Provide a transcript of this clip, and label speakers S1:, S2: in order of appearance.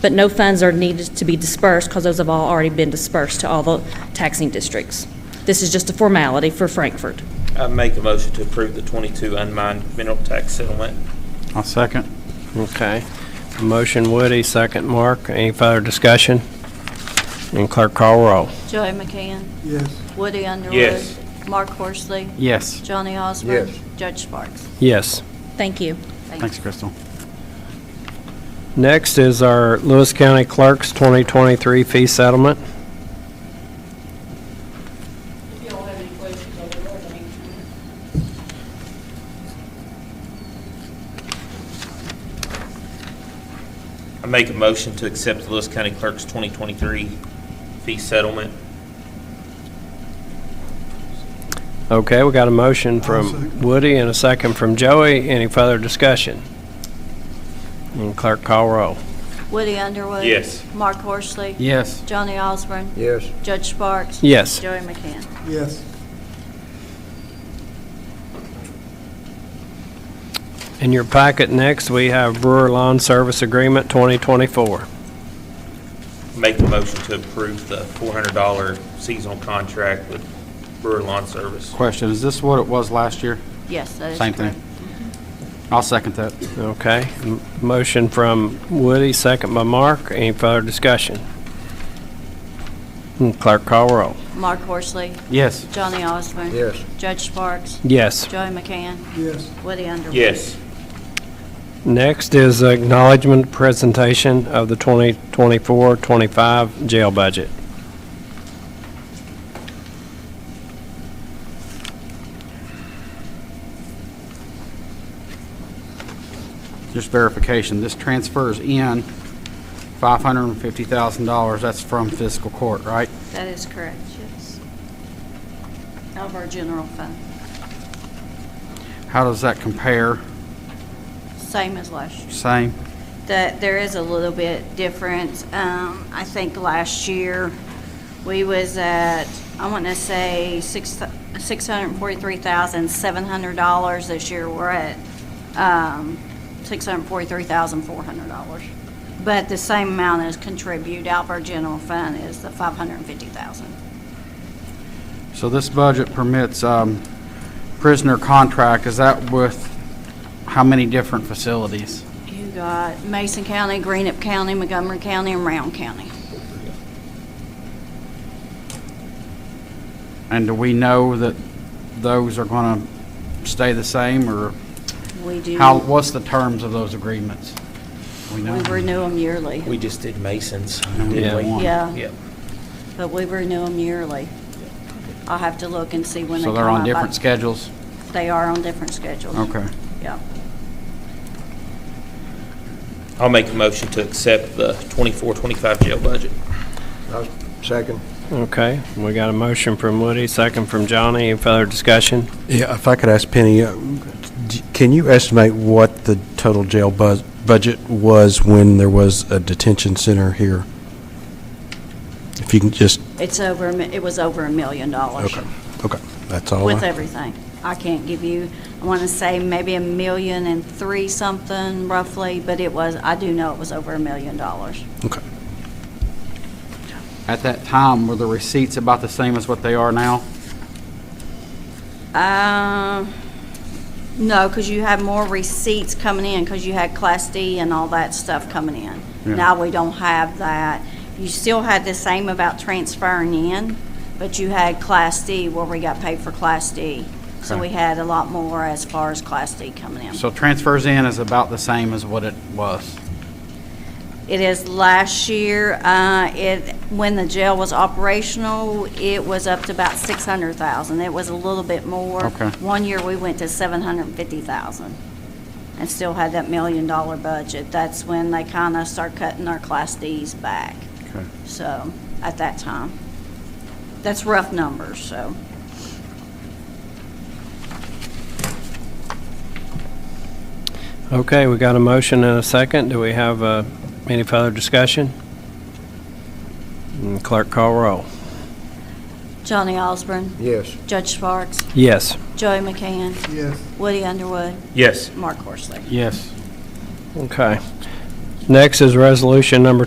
S1: but no funds are needed to be dispersed because those have all already been dispersed to all the taxing districts. This is just a formality for Frankfurt.
S2: I make a motion to approve the 22 unmined mineral tax settlement.
S3: I'll second.
S4: Okay. Motion Woody, second Mark. Any further discussion? And clerk call roll.
S5: Joey McCann.
S6: Yes.
S5: Woody Underwood.
S2: Yes.
S5: Mark Horsley.
S3: Yes.
S5: Johnny Osborne.
S6: Yes.
S5: Judge Sparks.
S4: Yes.
S1: Thank you.
S3: Thanks, Crystal.
S4: Next is our Lewis County Clerk's 2023 fee settlement.
S7: If y'all have any questions, I'll be glad to answer them.
S2: I make a motion to accept the Lewis County Clerk's 2023 fee settlement.
S4: Okay, we got a motion
S6: second.
S4: from Woody and a second from Joey. Any further discussion? And clerk call roll.
S5: Woody Underwood.
S2: Yes.
S5: Mark Horsley.
S3: Yes.
S5: Johnny Osborne.
S6: Yes.
S5: Judge Sparks.
S4: Yes.
S5: Joey McCann.
S6: Yes.
S4: In your packet next, we have Brewer Lawn Service Agreement 2024.
S2: Make a motion to approve the $400 seasonal contract with Brewer Lawn Service.
S3: Question, is this what it was last year?
S5: Yes, that is
S3: Same
S5: correct.
S3: thing. I'll second that.
S4: Okay, m- motion from Woody, second by Mark. Any further discussion? And Clerk call roll.
S5: Mark Horsley.
S3: Yes.
S5: Johnny Osborne.
S6: Yes.
S5: Judge Sparks.
S4: Yes.
S5: Joey McCann.
S6: Yes.
S5: Woody Underwood.
S2: Yes.
S4: Next is acknowledgement presentation of the 2024-25 jail budget.
S3: Just verification, this transfers in $550,000. That's from fiscal court, right?
S5: That is correct, yes. Out of our general fund.
S3: How does that compare?
S5: Same as last year.
S3: Same?
S5: that there is a little bit difference. Um, I think last year, we was at, I want to say six, six hundred and forty-three thousand, seven hundred dollars. This year, we're at, um, six hundred and forty-three thousand, four hundred dollars. But the same amount as contribute out of our general fund is the five hundred and fifty thousand.
S3: So this budget permits um, prisoner contract, is that with how many different facilities?
S5: You got Mason County, Greenup County, Montgomery County, and Round County.
S3: And do we know that those are going to stay the same, or
S5: We do,
S4: How-
S3: how, what's the terms of those agreements? We
S5: we
S3: know.
S5: renew them yearly.
S2: We just did Masons,
S3: No, we
S2: didn't
S3: did
S2: we?
S3: one.
S5: Yeah.
S2: Yep.
S5: But we renew them yearly. I'll have to look and see when they
S3: So
S5: come
S3: they're on
S5: up.
S3: different schedules?
S5: They are on different schedules.
S3: Okay.
S5: Yeah.
S2: I'll make a motion to accept the 24-25 jail budget.
S6: I'll second.
S4: Okay, we got a motion from Woody, second from Johnny. Any further discussion?
S6: Yeah, if I could ask Penny, uh, d- can you estimate what the total jail buz- budget was when there was a detention center here? If you can just,
S5: It's over, a mi- it was over a million dollars.
S6: okay, okay, that's all.
S5: With
S6: I-
S5: everything. I can't give you, I want to say maybe a million and three something roughly, but it was, I do know it was over a million dollars.
S6: Okay.
S3: At that time, were the receipts about the same as what they are now?
S5: Uh, No, because you had more receipts coming in, because you had Class D and all that stuff coming in.
S3: Yeah.
S5: Now we don't have that. You still had the same about transferring in, but you had Class D where we got paid for Class D. So
S3: Okay.
S5: we had a lot more as far as Class D coming in.
S3: So transfers in is about the same as what it was?
S5: It is last year, uh, it, when the jail was operational, it was up to about 600,000. It was a little bit more.
S3: Okay.
S5: One year, we went to 750,000 and still had that million-dollar budget. That's when they kind of start cutting our Class Ds back,
S3: Okay.
S5: so, at that time. That's rough numbers, so.
S4: Okay, we got a motion and a second. Do we have uh, any further discussion? And Clerk call roll.
S5: Johnny Osborne,
S6: Yes.
S5: Judge Sparks,
S4: Yes.
S5: Joey McCann,
S6: Yes.
S5: Woody Underwood,
S2: Yes.
S5: Mark Horsley.
S3: Yes.
S4: Okay. Next is resolution number